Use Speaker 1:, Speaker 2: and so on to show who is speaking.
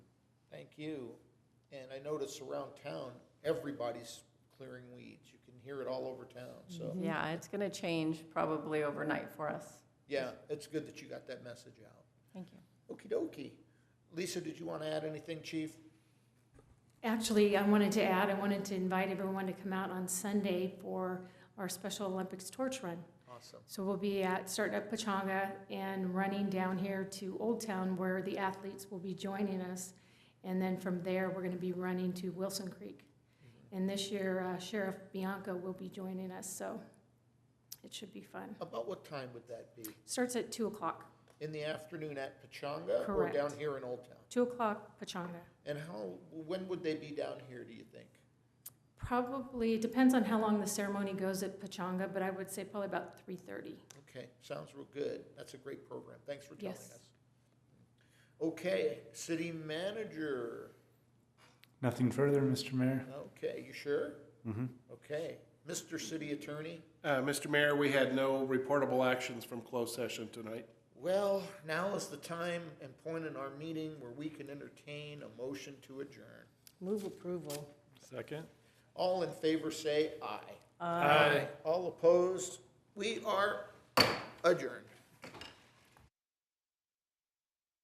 Speaker 1: you. And I notice around town, everybody's clearing weeds. You can hear it all over town,
Speaker 2: Mm-hmm.
Speaker 1: so,
Speaker 3: Yeah, it's going to change probably overnight for us.
Speaker 1: yeah, it's good that you got that message out.
Speaker 3: Thank you.
Speaker 1: Okey dokey. Lisa, did you want to add anything, chief?
Speaker 2: Actually, I wanted to add, I wanted to invite everyone to come out on Sunday for our Special Olympics torch run.
Speaker 1: Awesome.
Speaker 2: So we'll be at, starting at Pachanga and running down here to Old Town where the athletes will be joining us. And then from there, we're going to be running to Wilson Creek. And this year uh, Sheriff Bianco will be joining us, so it should be fun.
Speaker 1: About what time would that be?
Speaker 2: Starts at 2 o'clock,
Speaker 1: In the afternoon at Pachanga or
Speaker 2: Correct.
Speaker 1: down here in Old Town?
Speaker 2: 2 o'clock Pachanga.
Speaker 1: And how, when would they be down here, do you think?
Speaker 2: Probably, it depends on how long the ceremony goes at Pachanga, but I would say probably about 3:30.
Speaker 1: Okay, sounds real good. That's a great program. Thanks for telling
Speaker 2: Yes.
Speaker 1: us. Okay, city manager.
Speaker 4: Nothing further, Mr. Mayor.
Speaker 1: Okay, you sure? Mm-hmm. Okay. Mr. City Attorney?
Speaker 5: Uh, Mr. Mayor, we had no reportable actions from closed session tonight.
Speaker 1: Well, now is the time and point in our meeting where we can entertain a motion to adjourn.
Speaker 6: Move approval.
Speaker 5: Second.
Speaker 1: All in favor say aye. Aye. All opposed? We are adjourned.